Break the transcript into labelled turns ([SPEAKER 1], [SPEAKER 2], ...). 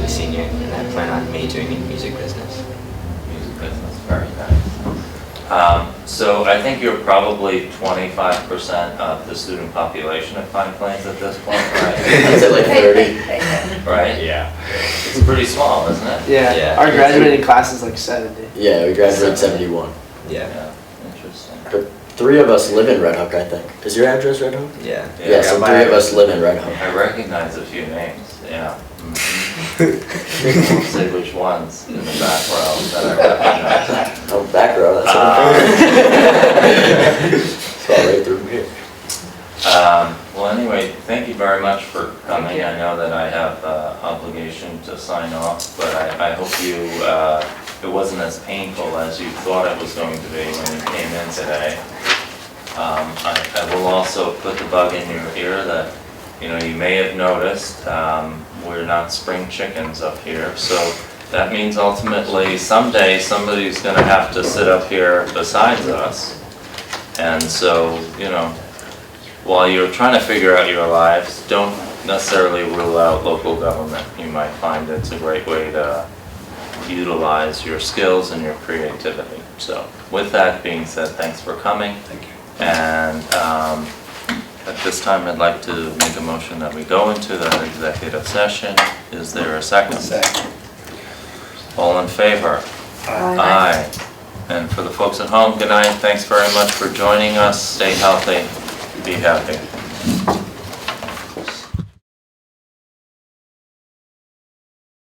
[SPEAKER 1] major in music business.
[SPEAKER 2] music business, very nice. Um, So I think you're probably 25% of the student population at Pine Plains at this point, right?
[SPEAKER 1] Is it like 30?
[SPEAKER 2] Right?
[SPEAKER 3] Yeah.
[SPEAKER 2] It's pretty small, isn't it?
[SPEAKER 4] Yeah,
[SPEAKER 1] Yeah.
[SPEAKER 4] our graduating class is like seventy.
[SPEAKER 5] Yeah, we graduated seventy-one.
[SPEAKER 1] Yeah,
[SPEAKER 2] Interesting.
[SPEAKER 5] But three of us live in Red Hook, I think. Is your address Red Hook?
[SPEAKER 1] yeah.
[SPEAKER 2] Yeah.
[SPEAKER 5] Yeah, so three of us live in Red Hook.
[SPEAKER 2] I recognize a few names, yeah. I'll Say which ones in the back row that I recognize.
[SPEAKER 5] Oh, back row, that's what
[SPEAKER 2] Ah.
[SPEAKER 5] I'm thinking. It's all right through here.
[SPEAKER 2] Um, Well, anyway, thank you very much for coming. I know that I have uh, obligation to sign off, but I, I hope you, uh, it wasn't as painful as you thought it was going to be when you came in today. Um, I, I will also put the bug in your ear that, you know, you may have noticed, um, we're not spring chickens up here. So that means ultimately someday somebody's gonna have to sit up here besides us. And so, you know, while you're trying to figure out your lives, don't necessarily rule out local government. You might find it's a great way to utilize your skills and your creativity. So with that being said, thanks for coming. Thank you. And um, at this time, I'd like to make a motion that we go into the executive session. Is there a second? Second. All in favor? Aye. And for the folks at home, good night. Thanks very much for joining us. Stay healthy, be happy.